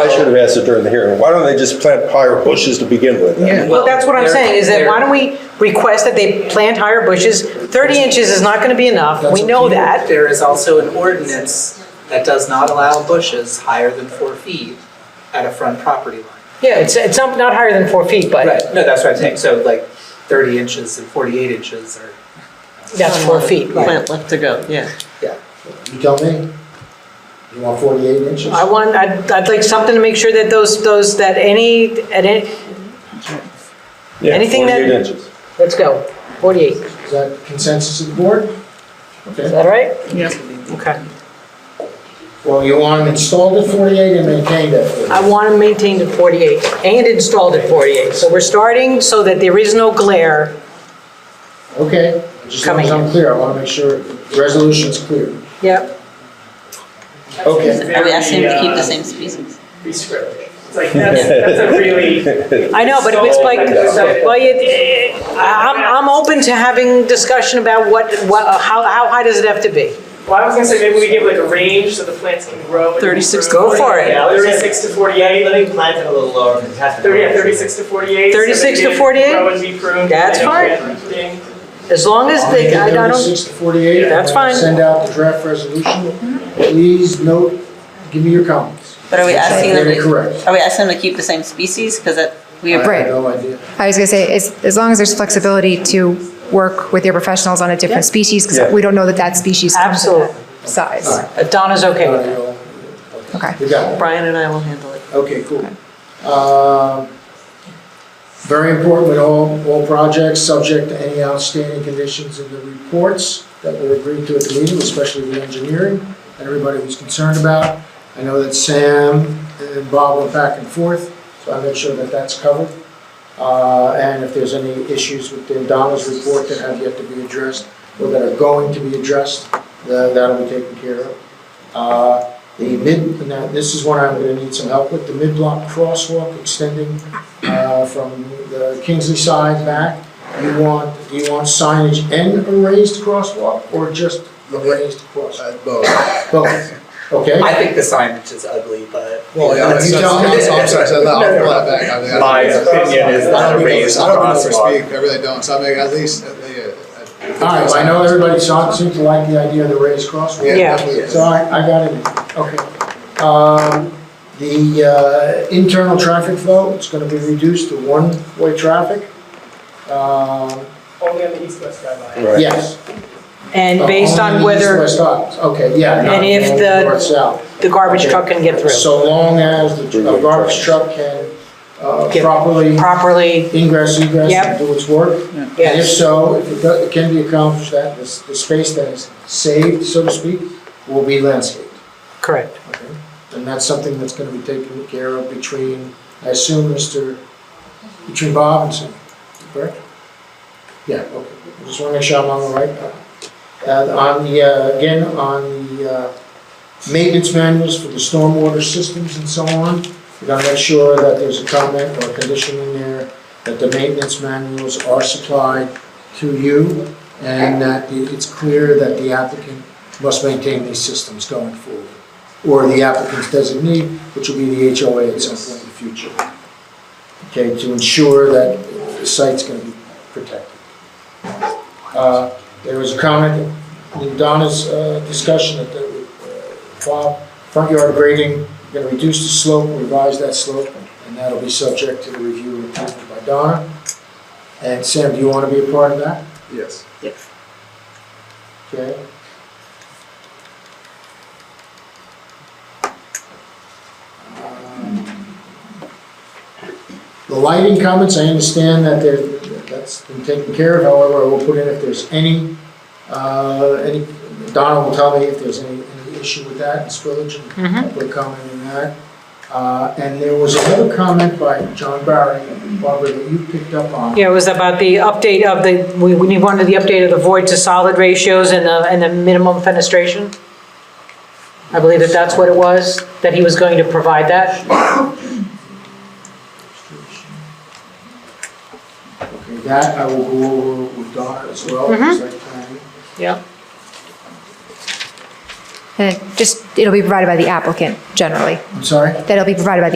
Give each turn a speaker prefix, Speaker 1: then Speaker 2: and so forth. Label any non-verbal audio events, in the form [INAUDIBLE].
Speaker 1: I should have asked it during the hearing. Why don't they just plant higher bushes to begin with?
Speaker 2: Yeah.
Speaker 3: Well, that's what I'm
Speaker 2: Well,
Speaker 3: saying, is that
Speaker 2: they're-
Speaker 3: why don't we request that they plant higher bushes? 30 inches is not gonna be enough, we know that.
Speaker 2: There is also an ordinance that does not allow bushes higher than four feet at a front property line.
Speaker 3: Yeah, it's, it's not not higher than four feet, but
Speaker 2: Right, no, that's what I'm saying, so like thirty inches and forty-eight inches are,
Speaker 3: that's four feet.
Speaker 4: Plant left to go, yeah.
Speaker 2: yeah.
Speaker 5: You tell me, you want 48 inches?
Speaker 3: I want, I'd, I'd like something to make sure that those, those, that any, at any,
Speaker 1: Yeah,
Speaker 3: Anything that-
Speaker 1: 48 inches.
Speaker 3: let's go, 48, is
Speaker 5: Is that consensus of the board? Okay.
Speaker 3: that all right?
Speaker 4: Yep.
Speaker 3: Okay.
Speaker 5: Well, you want them installed at 48 and maintained at 48?
Speaker 3: I want them maintained at 48 and installed at 48. So we're starting so that there is no glare.
Speaker 5: Okay, just as long as
Speaker 3: Coming.
Speaker 5: I'm clear, I want to make sure the resolution's clear.
Speaker 3: Yep.
Speaker 5: Okay,
Speaker 4: Are we asking him to keep the
Speaker 6: Very,
Speaker 4: same species?
Speaker 6: uh, Prescriptive. It's like, that's, that's
Speaker 1: [LAUGHS]
Speaker 6: a really,
Speaker 3: I know, but it's like, well, you- I- I'm, I'm open to having discussion about what, what, uh, how, how high does it have to be?
Speaker 6: well, I was gonna say, maybe we give like a range so the plants can grow. and
Speaker 4: 36 to
Speaker 6: improve.
Speaker 3: Go for it.
Speaker 6: Yeah, Thirty-six to forty-eight, let me,
Speaker 7: Mine's a little lower than Tessa's.
Speaker 6: thirty, yeah, thirty-six to forty-eight. so
Speaker 3: 36
Speaker 6: they
Speaker 3: to
Speaker 6: can
Speaker 3: 48?
Speaker 6: Grow and be pruned.
Speaker 3: That's
Speaker 6: and
Speaker 3: fine.
Speaker 6: plant thing.
Speaker 3: As long as
Speaker 5: I'll make
Speaker 3: they,
Speaker 5: it
Speaker 3: I don't,
Speaker 5: 36 to 48.
Speaker 3: That's
Speaker 5: I'll
Speaker 3: fine. Mm-hmm.
Speaker 5: Send out the draft resolution. Please note, give me your comments.
Speaker 4: But are we asking them
Speaker 5: Get
Speaker 4: to,
Speaker 5: it correct.
Speaker 4: are we asking them to keep the same species? Because that, we,
Speaker 5: I
Speaker 8: Right.
Speaker 5: have no idea.
Speaker 8: I was going to say, as, as long as there's flexibility to work with your professionals on a different species,
Speaker 1: Yeah.
Speaker 8: because we don't know that that species comes in
Speaker 3: absolutely.
Speaker 8: that size.
Speaker 3: If Donna's okay with it.
Speaker 8: Okay.
Speaker 5: Okay, you got it.
Speaker 4: Brian and I will handle it.
Speaker 5: Okay, cool. Um, Very important with all, all projects, subject to any outstanding conditions in the reports that were agreed to at the meeting, especially the engineering that everybody was concerned about. I know that Sam and Bob went back and forth, so I made sure that that's covered. Uh, And if there's any issues within Donna's report that have yet to be addressed or that are going to be addressed, tha- that'll be taken care of. Uh, the mid, now, this is one I'm gonna need some help with, the mid-block crosswalk extending uh, from the Kingsley side back. You want, do you want signage and a raised crosswalk, or just the raised crosswalk? Both, okay?
Speaker 2: I think the signage is ugly, but.
Speaker 9: Well, yeah, that's,
Speaker 5: You
Speaker 9: that's,
Speaker 5: tell me.
Speaker 9: that's, I'm sorry, so I'll pull that back. I mean, I-
Speaker 7: My opinion is
Speaker 9: I
Speaker 7: not
Speaker 9: don't
Speaker 7: a
Speaker 9: really,
Speaker 7: raised
Speaker 9: I don't really
Speaker 7: crosswalk.
Speaker 9: speak, I really don't, so I mean, at least, uh, yeah.
Speaker 5: All right, so I know everybody saw it, seems to like the idea of the raised crosswalk.
Speaker 3: Yeah.
Speaker 9: definitely.
Speaker 5: So I, I got it, okay. Um, The uh, internal traffic flow, it's gonna be reduced to one-way traffic. Um,
Speaker 6: Only on the east-west drive-by.
Speaker 1: Right.
Speaker 5: Yes.
Speaker 3: And based on
Speaker 5: Oh, Only
Speaker 3: whether
Speaker 5: east-west sides. Okay, yeah.
Speaker 3: And
Speaker 5: not
Speaker 3: if the-
Speaker 5: north-south.
Speaker 3: the garbage truck can get through
Speaker 5: So long as the tr- a garbage truck can uh,
Speaker 3: Get-
Speaker 5: properly
Speaker 3: properly,
Speaker 5: ingress, egress,
Speaker 3: Yep.
Speaker 5: and do its work. And if
Speaker 3: yes.
Speaker 5: so, if it does- it can be accomplished, that the s- the space that is saved, so to speak, will be landscaped.
Speaker 3: Correct.
Speaker 5: Okay, And that's something that's gonna be taken care of between, I assume, Mr., between Bob and Sam, correct? Yeah, okay, I just wanna make sure I'm on the right path. And on the, uh, again, on the, uh, maintenance manuals for the stormwater systems and so on, we gotta make sure that there's a comment or a condition in there that the maintenance manuals are supplied to you and that it- it's clear that the applicant must maintain these systems going forward or the applicant's designee, which will be the HOA at some point in the future. Okay, to ensure that the site's gonna be protected. Uh, There was a comment in Donna's uh, discussion that the uh, front- front yard grading, gonna reduce the slope, revise that slope, and that'll be subject to the review and approval by Donna. And Sam, do you wanna be a part of that?
Speaker 9: Yes.
Speaker 5: Okay. Um, The lighting comments, I understand that there, that's been taken care of, however, I will put in if there's any, uh, any, Donna will tell me if there's any, any issue with that, it's village, and I'll put a comment in that. Uh, and there was another comment by John Barry, Barbara, that you picked up on.
Speaker 3: Yeah, it was about the update of the, we, we need one of the update of the void to solid ratios and the, and the minimum fenestration. I believe that that's what it was, that he was going to provide that.
Speaker 5: Okay, that I will go over with Donna as well,
Speaker 3: Mhm.
Speaker 5: site planning.
Speaker 3: Yeah.
Speaker 8: And it just, it'll be provided by the applicant generally.
Speaker 5: I'm sorry?
Speaker 8: That'll be provided by the